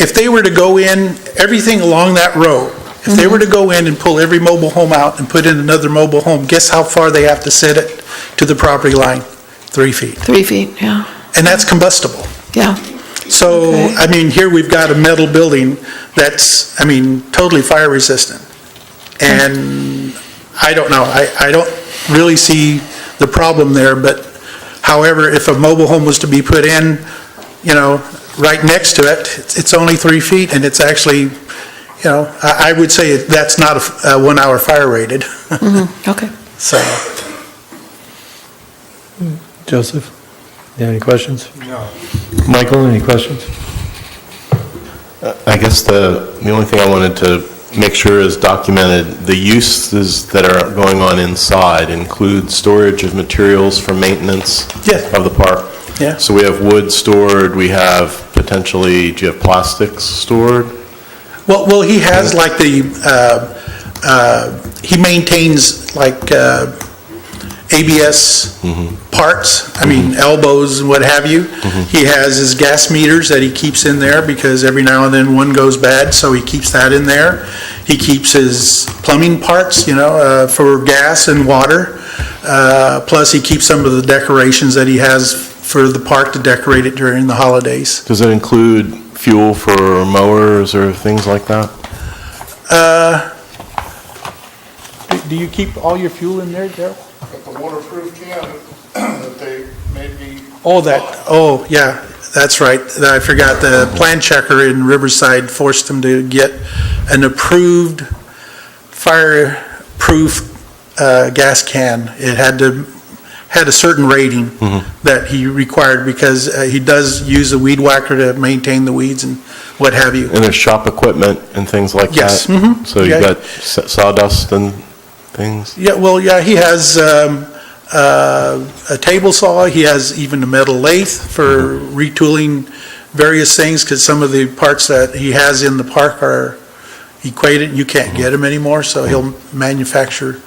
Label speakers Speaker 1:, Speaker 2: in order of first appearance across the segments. Speaker 1: if they were to go in, everything along that road, if they were to go in and pull every mobile home out and put in another mobile home, guess how far they have to set it to the property line? Three feet.
Speaker 2: Three feet, yeah,
Speaker 1: And that's combustible.
Speaker 2: yeah.
Speaker 1: So,
Speaker 2: Okay.
Speaker 1: I mean, here we've got a metal building that's, I mean, totally fire resistant. And I don't know, I, I don't really see the problem there, but however, if a mobile home was to be put in, you know, right next to it, it's- it's only three feet and it's actually, you know, I, I would say that's not a f- a one-hour fire rated,
Speaker 2: Okay.
Speaker 1: so.
Speaker 3: Joseph, you have any questions? No. Michael, any questions?
Speaker 4: I guess the, the only thing I wanted to make sure is documented, the uses that are going on inside include storage of materials for maintenance
Speaker 1: Yes.
Speaker 4: of the park.
Speaker 1: Yeah.
Speaker 4: So we have wood stored, we have potentially, do you have plastics stored?
Speaker 1: Well, well, he has like the, uh, uh, he maintains like uh, ABS parts, I mean elbows and what have you. He has his gas meters that he keeps in there because every now and then one goes bad, so he keeps that in there. He keeps his plumbing parts, you know, uh, for gas and water. Uh, Plus, he keeps some of the decorations that he has for the park to decorate it during the holidays.
Speaker 4: Does it include fuel for mowers or things like that?
Speaker 1: Do you keep all your fuel in there, Daryl?
Speaker 5: But the waterproof can that they made me,
Speaker 1: Oh, that, oh, yeah, that's right. I forgot, the plan checker in Riverside forced them to get an approved fireproof uh, gas can. It had to, had a certain rating that he required because uh, he does use a weed whacker to maintain the weeds and what have you.
Speaker 4: And there's shop equipment and things like that?
Speaker 1: Yes, mhm.
Speaker 4: So you've
Speaker 1: Yeah.
Speaker 4: got sa- sawdust and things?
Speaker 1: Yeah, well, yeah, he has um, uh, a table saw, he has even a metal lathe for retooling various things, because some of the parts that he has in the park are equated, you can't get them anymore, so he'll manufacture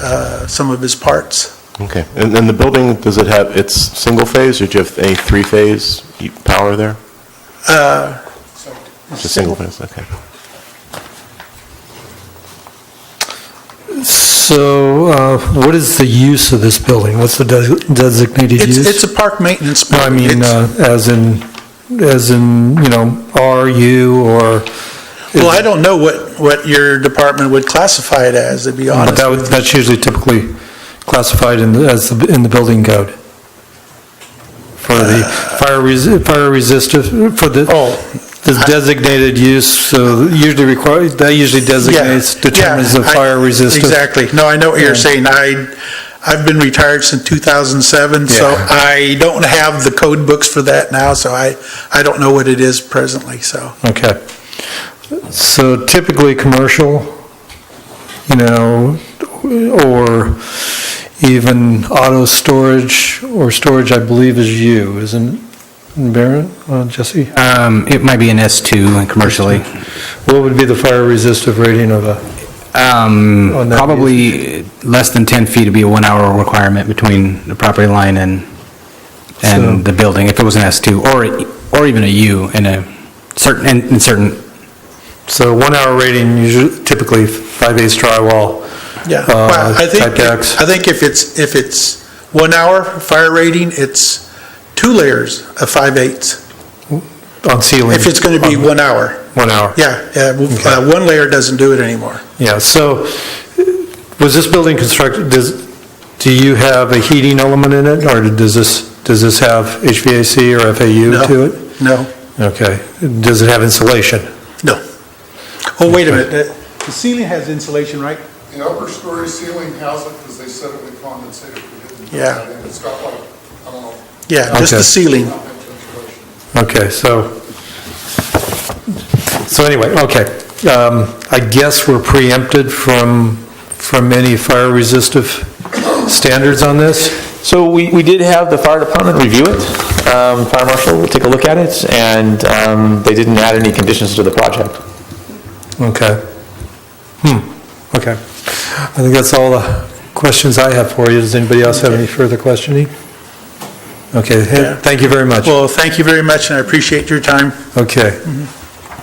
Speaker 1: uh, some of his parts.
Speaker 4: Okay. And then the building, does it have, it's single-phase, or do you have any three-phase power there?
Speaker 1: Uh,
Speaker 4: Just single-phase, okay.
Speaker 3: So uh, what is the use of this building? What's the des- designated
Speaker 1: It's,
Speaker 3: use?
Speaker 1: it's a park maintenance
Speaker 3: No, I
Speaker 1: building.
Speaker 3: mean,
Speaker 1: It's-
Speaker 3: uh, as in, as in, you know, RU or,
Speaker 1: Well, I don't know what, what your department would classify it as, to be
Speaker 3: Mm, but
Speaker 1: honest.
Speaker 3: that would- that's usually typically classified in, the- as, the- in the building code. For the fire resi- fire resistant, for the,
Speaker 1: Uh, Oh.
Speaker 3: the designated use, so usually requires, that usually
Speaker 1: Yeah,
Speaker 3: designates, determines
Speaker 1: yeah,
Speaker 3: the
Speaker 1: I-
Speaker 3: fire resistant.
Speaker 1: Exactly. No, I know what you're
Speaker 3: Yeah.
Speaker 1: saying. I, I've been retired since 2007, so
Speaker 3: Yeah.
Speaker 1: I don't have the code books for that now, so I, I don't know what it is presently, so.
Speaker 3: Okay. So typically, commercial, you know, or even auto storage, or storage, I believe, is you, isn't it, Baron, Uh, Jesse?
Speaker 6: Um, It might be an S2 and commercially.
Speaker 3: What would be the fire resistive rating of a,
Speaker 6: Um,
Speaker 3: Oh, no.
Speaker 6: Probably less than 10 feet would be a one-hour requirement between the property line and,
Speaker 3: So-
Speaker 6: and the building, if it was an S2, or, or even a U in a certain, in in certain,
Speaker 3: so one-hour rating, usually typically five-eighths drywall.
Speaker 1: Yeah,
Speaker 3: Uh,
Speaker 1: Well, I think,
Speaker 3: type X.
Speaker 1: I think if it's, if it's one hour fire rating, it's two layers of five eighths,
Speaker 3: on ceiling.
Speaker 1: if it's going to be
Speaker 3: on
Speaker 1: one hour.
Speaker 3: One hour.
Speaker 1: Yeah, yeah, uh, one layer doesn't do it anymore.
Speaker 3: Yeah, so uh, was this building constructed, does, do you have a heating element in it, or does this, does this have HVAC or
Speaker 1: No.
Speaker 3: FAU to it?
Speaker 1: No,
Speaker 3: Okay, does it have insulation?
Speaker 1: no. Oh, wait a minute. Uh, The ceiling has insulation, right?
Speaker 5: the upper story ceiling has it because they said it would condensate if we didn't put
Speaker 1: Yeah.
Speaker 5: that in. It's got like, I don't know,
Speaker 1: Yeah, just the
Speaker 3: Okay.
Speaker 1: ceiling.
Speaker 5: half inch insulation.
Speaker 3: Okay, so, so anyway, okay. Um, I guess we're preempted from, from any fire-resistive standards on this?
Speaker 7: So we, we did have the fire department review it. Um, Fire marshal will take a look at it, and um, they didn't add any conditions to the project.
Speaker 3: Okay. Hmm, okay. I think that's all the questions I have for you. Does anybody else have any further questioning? Okay, hey, thank you very much.
Speaker 1: Well, thank you very much, and I appreciate your time.
Speaker 3: Okay.